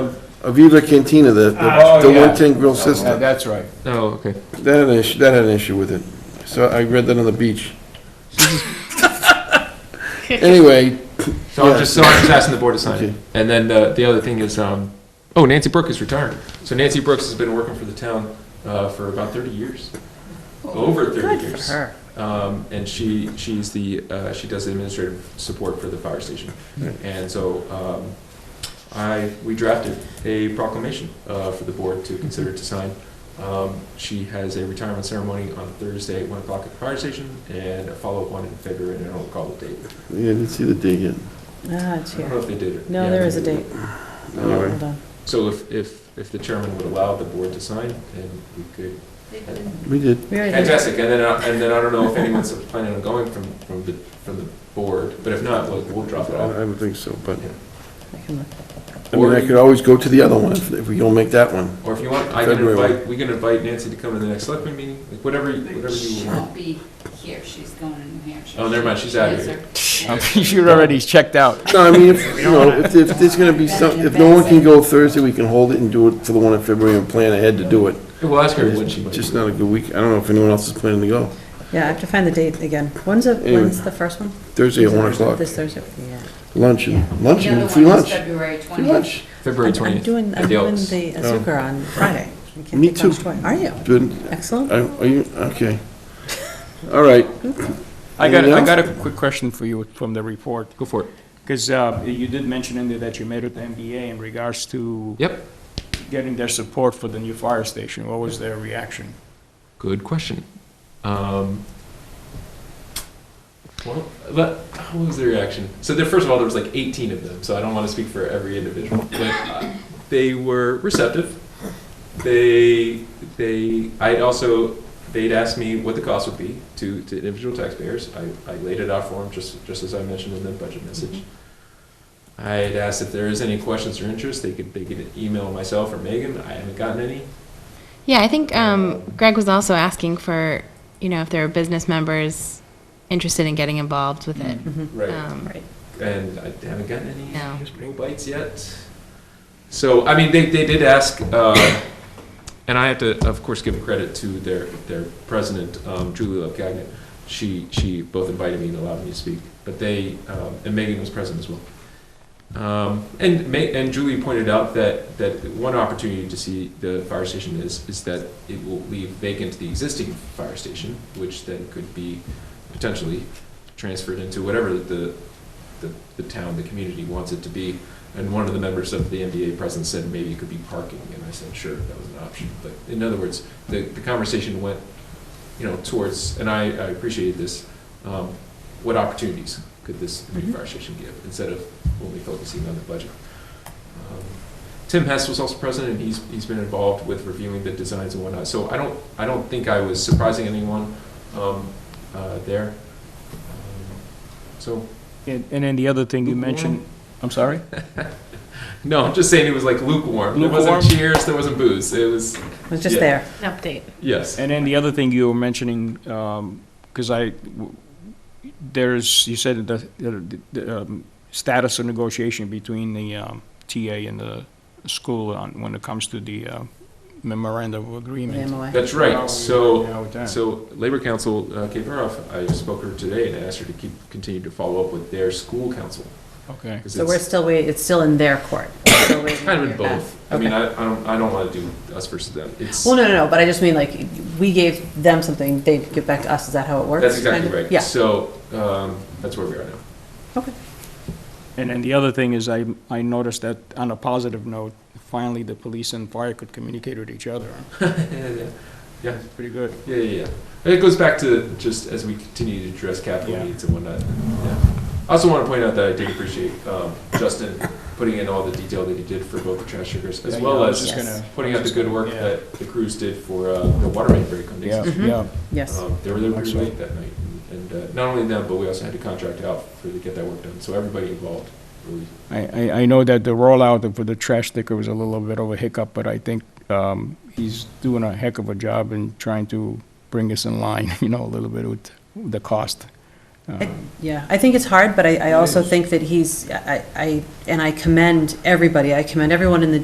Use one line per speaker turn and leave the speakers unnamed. Aviva Cantina, the,
Ah,
Uh,
the- the
oh, yeah.
one-tin grill
Yeah,
system,
That's right.
Oh, okay.
that had an issue, that had an issue with it. So I read that on the beach. Anyway,
So I'm
Yeah.
just, so I'm just asking the board to sign
Okay.
it. And then uh, the, the other thing is, um, oh, Nancy Brooks is retiring. So Nancy Brooks has been working for the town, uh, for about thirty years. Over thirty
Oh, Good
years.
for her.
Um, and she, she's the, uh, she does the administrative support for the fire station. And so, um, I, we drafted a proclamation, uh, for the board to consider to sign. Um, she has a retirement ceremony on Thursday at one o'clock at the fire station and a follow-up one in February, and I don't recall the date.
yeah, I didn't see the date yet.
Ah, it's
I don't know
here.
if they did it.
No, there is a date.
Anyway,
Hold on.
So if, if, if the chairman would allow the board to sign, then we could.
we did.
We already did.
Fantastic, and then, I- and then I don't know if anyone's planning on going from, from the, from the board, but if not, we'll, we'll drop it off.
I would think so, but,
I can look.
I mean, I could always go to the other one if if we don't make that one.
Or if you want, I can
February.
invite, we can invite Nancy to come to the next selectman meeting, like whatever, you- whatever
She
you want.
won't be here, she's going to New Hampshire.
Oh, never mind, she's out of
She
here.
is her-
You're already checked out.
No, I mean, if, you know, if, if there's gonna be some, if no one can go Thursday, we can hold it and do it for the one in February and plan ahead to do it.
We'll ask her when she might.
It's Just not a good week. I don't know if anyone else is planning to go.
Yeah, I have to find the date again. When's the,
Anyway.
when's the first one?
Thursday at one o'clock,
This Thursday, yeah.
luncheon,
Yeah. The
luncheon,
other
free
one is
lunch,
February
free
20th.
lunch.
February
I'm- I'm
twentieth.
doing, I'm doing the Azuka on Friday. I can't
Oh. Me
think much
too.
twice. Are you?
Good,
Excellent.
I- are you, okay. All right,
I got,
Anything
I
else?
got a quick question for you from the report,
Go for it.
because you did mention in there that you made it to MBA in regards to
Yep,
getting their support for the new fire station. What was their reaction?
good question. Um, well, but what was the reaction? So there, first of all, there was like eighteen of them, so I don't want to speak for every individual, but uh, they were receptive. They, they, I'd also, they'd asked me what the cost would be to, to individual taxpayers. I, I laid it out for them, just, just as I mentioned in the budget message. I had asked if there is any questions or interest, they could, they could email myself or Megan. I haven't gotten any.
Yeah, I think um, Greg was also asking for, you know, if there are business members interested in getting involved with it.
Mm-hmm.
Right.
Um,
and I haven't gotten any
No.
no bites yet. So I mean, they, they did ask, uh, and I have to of course give credit to their their president um, Julie Love Gagnon. She she both invited me and allowed me to speak, but they um, and Megan was present as well. Um, and Ma- and Julie pointed out that that one opportunity to see the fire station is is that it will leave vacant the existing fire station, which then could be potentially transferred into whatever the the, the town, the community wants it to be. And one of the members of the MBA president said maybe it could be parking, and I said, sure, that was an option. But in other words, the, the conversation went, you know, towards, and I, I appreciated this, um, what opportunities could this new fire station give, instead of only focusing on the budget. Um, Tim Hess was also president, and he's, he's been involved with reviewing the designs and whatnot, so I don't, I don't think I was surprising anyone, um, uh, there. Um, So,
And and then the other thing you mentioned, I'm sorry?
No, I'm just saying it was like lukewarm. There
Lukewarm?
wasn't cheers, there wasn't booze. It was
It was just
Yeah.
there.
An update.
yes.
And then the other thing you were mentioning, because I, there's, you said the, the- the um, status of negotiation between the um, TA and the school on, when it comes to the uh, memorandum of agreement.
MOA.
That's right. So
How it done.
so Labor Council uh, Kate Baroff, I spoke to her today and asked her to keep continue to follow up with their school council
Okay.
'cause
So we're
it's
still waiting, it's still in their court. We're still waiting
kind
to
of in
hear back.
both. I mean, I, I don't I don't want to do us versus them. It's
Well, no, no, no, but I just mean like, we gave them something, they give back to us, is that how it works?
that's exactly
kind of?
right.
Yeah,
So um, that's where we are now.
okay.
And then the other thing is I, I noticed that on a positive note, finally the police and fire could communicate with each other.
Yeah, yeah, yeah.
That's pretty good.
Yeah, yeah, yeah. It goes back to just as we continue to address capital
Yeah.
needs and whatnot. Yeah. I also want to point out that I did appreciate um, Justin putting in all the detail that he did for both the trash sugars as
Yeah,
well
yeah, I was
as
just gonna-
pointing out the good work
Yeah.
that the crews did for uh, the water main break on
Yeah,
Dixie Street.
yeah.
Yes,
Um, they were there pretty
Excellent.
late that night, and, and uh, not only them, but we also had to contract out for to get that work done. So everybody involved really
I, I, I know that the rollout for the trash sticker was a little bit of a hiccup, but I think, um, he's doing a heck of a job in trying to bring us in line, you know, a little bit with the cost. Uh,
yeah, I think it's hard, but I, I also think that he's, I, I, and I commend everybody, I commend everyone in the